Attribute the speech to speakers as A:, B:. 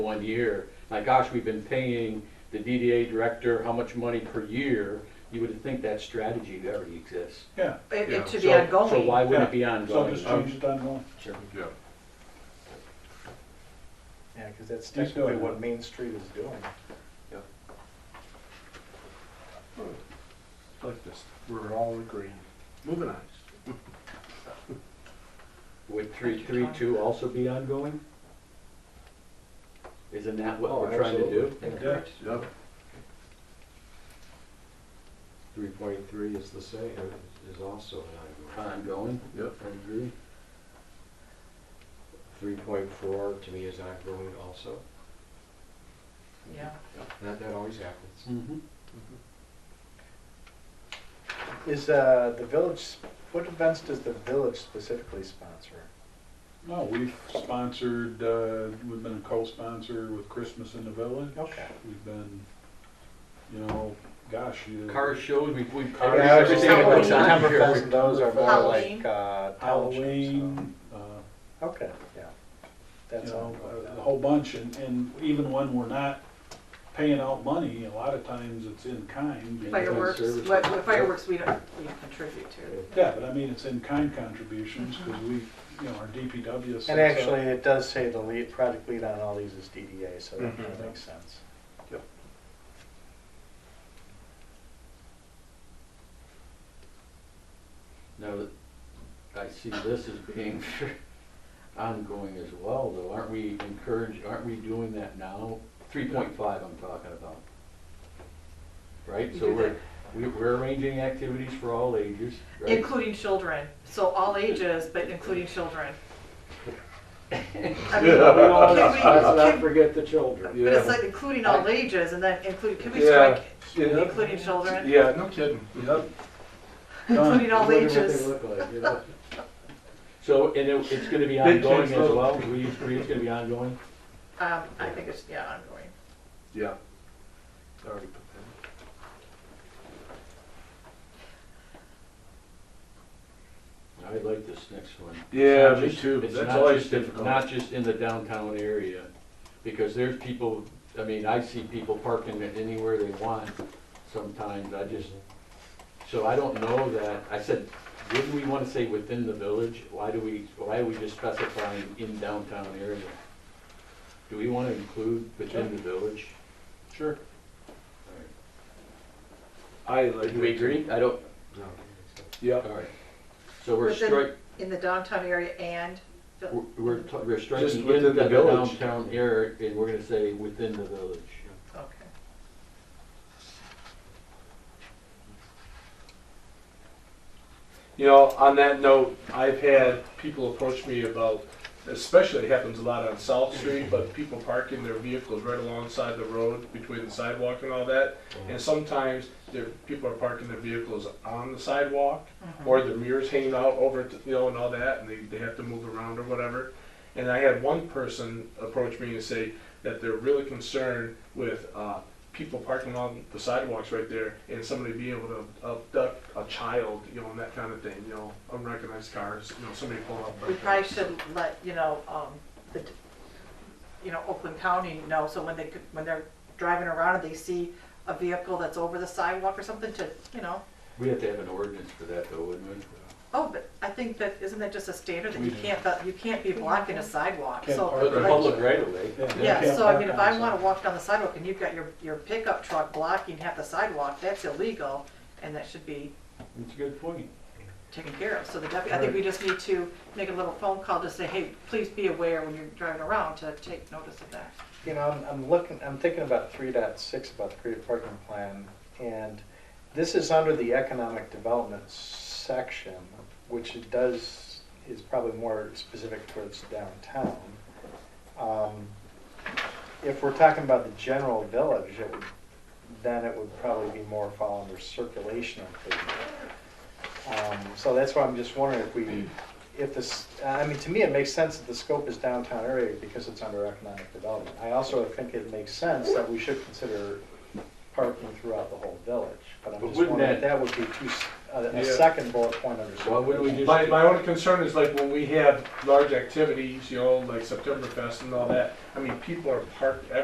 A: one year. My gosh, we've been paying the DDA director how much money per year? You would think that strategy already exists.
B: Yeah,
C: It,
D: Yeah.
C: it
A: So-
C: to be ongoing.
A: So why would it be
B: so
A: ongoing? Um,
B: just change it ongoing.
A: Sure.
D: Yeah,
E: Yeah, because that's
B: Keep
E: technically
B: going.
E: what Main Street is doing.
D: like this.
E: We're all agreed.
D: Moving on.
A: Would three, three, two also be ongoing? Isn't that what
E: Oh,
A: we're trying to do?
E: absolutely.
B: Yeah,
D: Yep.
F: Three point three is the same, is also an ongoing.
A: Ongoing,
D: Yep.
A: I agree.
F: Three point four to me is ongoing also.
C: Yeah.
F: That, that always happens.
A: Mhm.
E: Is, uh, the village, what events does the village specifically sponsor?
B: no, we've sponsored, uh, we've been a co-sponsor with Christmas in the Village.
E: Okay.
B: We've been, you know, gosh, you.
A: Car shows, we've, we've.
E: Yeah,
A: car
E: I was just
A: shows,
E: thinking about
A: everything
C: Halloween.
A: about time
E: Septemberfest
A: here.
E: and those are more like,
C: Halloween.
E: uh, townships.
B: Halloween, uh,
E: so- Okay, yeah.
B: you
E: That's
B: know,
E: ongoing.
B: a- a whole bunch, and, and even when we're not paying out money, a lot of times it's in kind. you know.
C: Fireworks,
A: service.
C: what, what fireworks we don't, we don't contribute to.
B: Yeah, but I mean, it's in kind contributions, because we, you know, our DPW. sets up-
E: And actually, it does say the lead, project lead on all these is DDA, so that kind of
B: Mhm.
E: makes sense.
A: Now, that I see this as being ongoing as well, though, aren't we encouraged, aren't we doing that now? Three point five I'm talking about. Right,
C: We
A: so
C: do
A: we're, we- we're arranging activities for all ages, right?
C: Including children, so all ages, but including children. I mean, can we-
F: Let's not
C: can-
F: forget the children.
C: But it's like including all ages and then include, can we
D: Yeah.
C: strike including children?
D: Yeah, no kidding. Yep.
B: Done.
C: Including all
F: Wonder what they
C: ages.
F: look like, you know?
A: So, and it, it's gonna be
D: Big
A: ongoing as
D: change, though.
A: well, we, it's gonna be ongoing?
C: Um, I think it's, yeah, ongoing.
D: Yeah. I Already put that
A: I like this next one.
D: in. Yeah,
A: It's not
D: me
A: just-
D: too.
A: it's
D: That's
A: not
D: always
A: just in-
D: difficult.
A: Not just in the downtown area, because there's people, I mean, I see people parking it anywhere they want sometimes, I just, so I don't know that, I said, wouldn't we wanna say within the village? Why do we, why are we just specifying in downtown area? Do we wanna include within the village?
B: Sure.
D: I like.
A: Do we
D: it too.
A: agree? I don't,
F: No.
D: Yep.
A: alright, so we're
C: Within-
A: strike,
C: In the downtown area and,
A: We're- We're, t- we're
D: Just
A: striking
D: within
A: in
D: the
A: the
D: village.
A: downtown area, and we're gonna say within the village.
C: okay.
D: You know, on that note, I've had people approach me about, especially it happens a lot on South Street, but people parking their vehicles right alongside the road between the sidewalk and all that. And sometimes there, people are parking their vehicles on the sidewalk
C: Mm-hmm.
D: or their mirrors hanging out over, t- you know, and all that, and they, they have to move around or whatever. And I had one person approach me and say that they're really concerned with, uh, people parking on the sidewalks right there and somebody being able to abduct a child, you know, and that kind of thing, you know, unrecognized cars, you know, somebody pulling up.
C: We probably should let, you know, um, the, you know, Oakland County know, so when they, could- when they're driving around and they see a vehicle that's over the sidewalk or something to, you know,
A: We have to have an ordinance for that though, wouldn't we?
C: oh, but I think that, isn't that just a standard that you can't, that you can't be blocking a sidewalk,
B: Mm-hmm. Can't
C: so.
B: park
A: For the
B: Right.
C: like,
A: public right of way.
B: Yeah, you
C: Yeah,
B: can't
C: so I
B: park
C: mean, if
B: on the
C: I
B: side.
C: wanna walk down the sidewalk and you've got your, your pickup truck blocking half the sidewalk, that's illegal, and that should be
A: That's a good point.
C: taken care of. So the deputy, I think we just need to make a little phone call to say, hey, please be aware when you're driving around to take notice of that.
E: You know, I'm, I'm looking, I'm thinking about three point six about the creative parking plan, and this is under the economic development section, which it does, is probably more specific towards downtown. Um, If we're talking about the general village, it would, then it would probably be more fall under circulation improvement. Um, So that's why I'm just wondering if we, if this, I mean, to me, it makes sense that the scope is downtown area because it's under economic development. I also think it makes sense that we should consider parking throughout the whole village, but I'm
A: But
E: just
A: wouldn't
E: wondering if
A: that-
E: that would be too, s- a, a
D: Yeah.
E: second bullet point under
A: Why wouldn't we
E: supervision.
A: just?
D: My, my only concern is like when we have large activities, you know, like September Fest and all that, I mean, people are parked